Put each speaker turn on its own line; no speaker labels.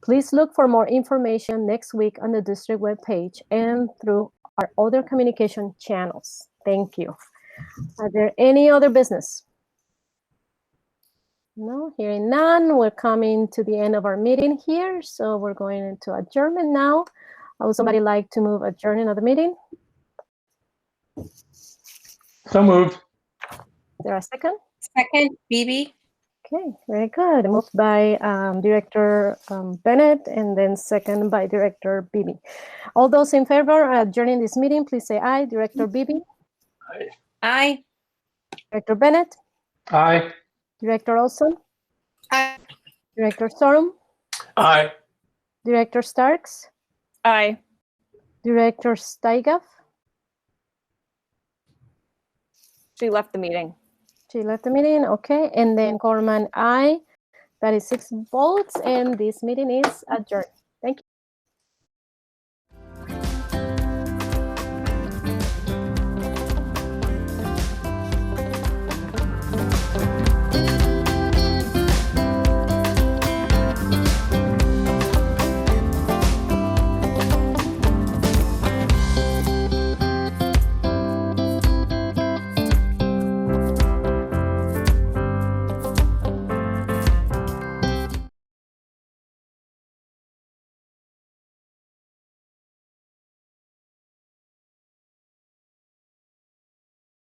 Please look for more information next week on the district webpage and through our other communication channels. Thank you. Are there any other business? No, hearing none, we're coming to the end of our meeting here, so we're going into adjournment now. Uh, Would somebody like to move adjourning of the meeting?
So moved.
Is There a second?
Second, Bibi?
Okay, very good. Moved by um, Director um, Bennett and then second by Director Bibi. All those in favor of adjourning this meeting, please say aye. Director
Mm-hmm.
Bibi,
Aye.
Director Bennett,
Aye.
Director Olson,
Aye.
Director Sorum,
Aye.
Director Starks,
Aye.
Director Steigaff.
She left the meeting.
She left the meeting, okay, and then Corman, aye. That is six votes, and this meeting is adjourned. Thank you.